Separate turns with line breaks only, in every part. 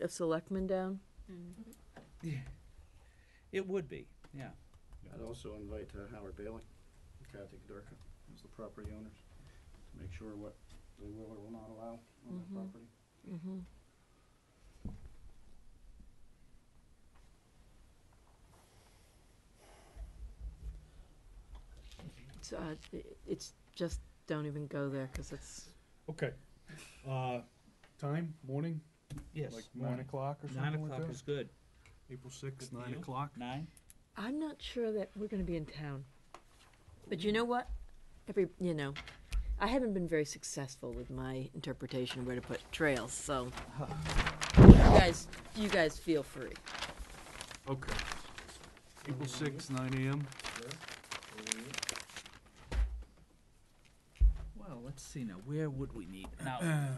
of selectmen down?
It would be, yeah.
I'd also invite uh, Howard Bailey, and Kathy Kadarka, as the property owners, to make sure what they will or will not allow on
Mhm.
their property.
Mm-hmm. It's, uh, i- it's just, don't even go there, cause it's,
Okay. Uh, time, morning,
Yes.
like nine o'clock or
Nine
something like
o'clock
that?
is good.
April sixth,
Good for
nine
you?
o'clock?
Nine?
I'm not sure that we're gonna be in town. But you know what? Every, you know, I haven't been very successful with my interpretation of where to put trails, so. You guys, you guys feel free.
Okay. April sixth, nine AM.
Well, let's see now, where would we meet? Now,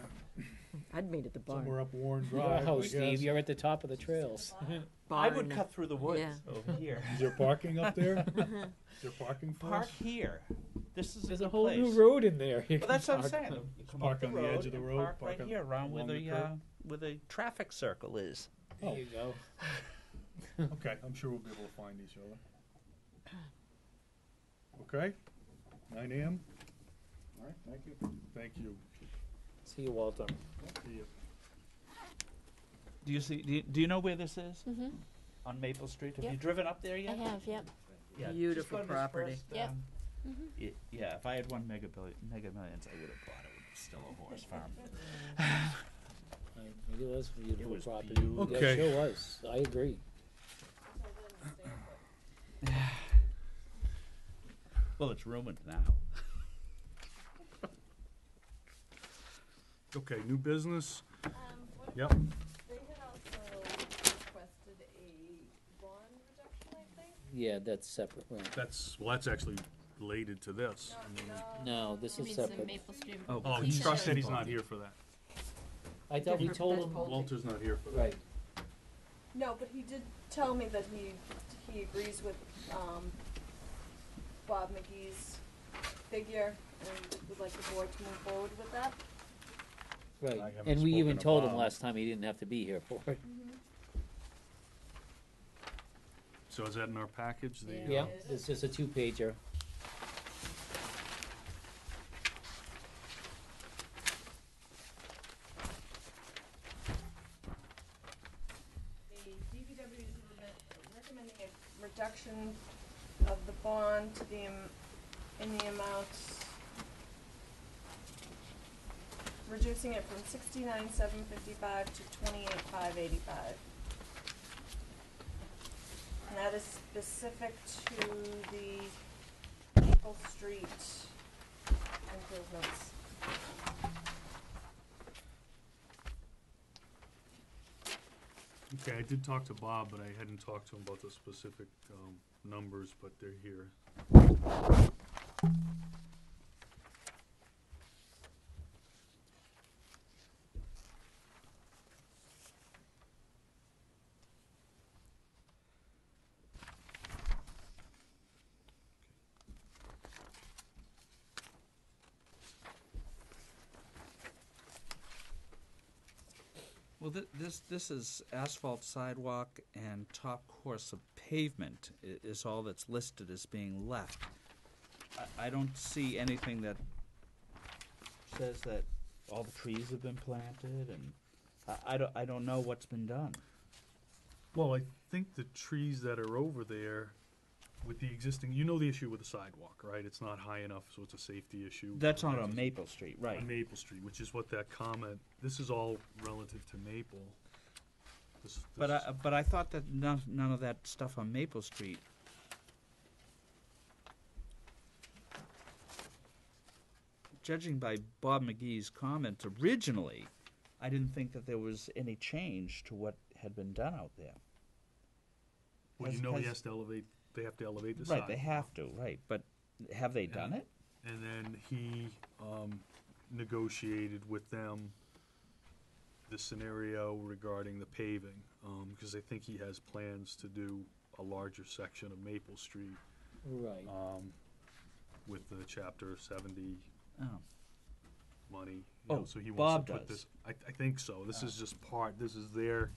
I'd meet at the barn.
Somewhere up Warren Drive, I
Wow,
guess.
Oh, Steve, you're at the top of the trails.
I
Barn.
would cut through the woods over here.
Is there parking up there? Is there parking for
Park
us?
here. This is a
There's a
good
whole new
place.
road in there. You
Well,
can
that's what I'm
park.
saying. You come
park
up
on the edge of the
and
road,
Park
park
right
on-
here around where
along the
the, uh,
curb.
where the traffic circle is.
There you go.
Okay, I'm sure we'll be able to find each other. Okay, nine AM,
All right, thank you.
thank you.
See you, Walter.
See ya.
Do you see, do you, do you know where this is? On Maple Street? Have you
Yep.
driven up there yet?
I have, Mm-hmm. yep.
Yeah, just
Beautiful
go to this
property.
first,
Yep.
um, y- Yeah, if I had one mega billion, mega millions, I would have bought it. It's still a horse farm.
Uh, It was a beautiful
was
property.
beautiful.
Yeah,
Okay.
it sure was. I agree.
Well, it's ruined now.
Okay, new business? Yep.
They had also requested a bond reduction, I think.
Yeah, that's separate, right.
That's, well, that's actually related to this. Uh,
No, this is
the
separate.
Maple Street.
Oh,
He's not
Trust said he's not here for that.
I thought we
Different
told
than
him,
Paul.
Walter's not here for that.
right,
No, but he did tell me that he, he agrees with, um, Bob McGee's figure and would like the board to move forward with that.
right.
I haven't
And we
spoken
even
to
told him
Bob.
last time he didn't have to be here for it.
So is that in our package? The, uh,
Yeah, it's just a two-pager.
The DPW is re- recommending a reduction of the bond to the, am- in the amount, reducing it from sixty-nine, seven fifty-five to twenty-eight, five eighty-five. And that is specific to the Maple Street improvements.
Okay, I did talk to Bob, but I hadn't talked to him about the specific, um, numbers, but they're here.
Well, thi- this, this is asphalt sidewalk and top course of pavement i- is all that's listed as being left. I, I don't see anything that says that all the trees have been planted and I, I don't, I don't know what's been done.
Well, I think the trees that are over there with the existing, you know the issue with the sidewalk, right? It's not high enough, so it's a safety issue.
That's not on Maple Street, right?
On Maple Street, which is what that comment, this is all relative to Maple. This-
But uh,
this-
I, but I thought that none, none of that stuff on Maple Street. Judging by Bob McGee's comments originally, I didn't think that there was any change to what had been done out there.
Well, you
has-
know he
has-
has to elevate, they have to elevate the
Right,
sidewalk.
they have to, right, but have they done it?
And then he um, negotiated with them the scenario regarding the paving, because I think he has plans to do a larger section of Maple Street
Right.
um, with the Chapter 70
Oh,
money No,
Oh,
so he wants
Bob
to put
does.
this, I, I think so, this is just part, this is their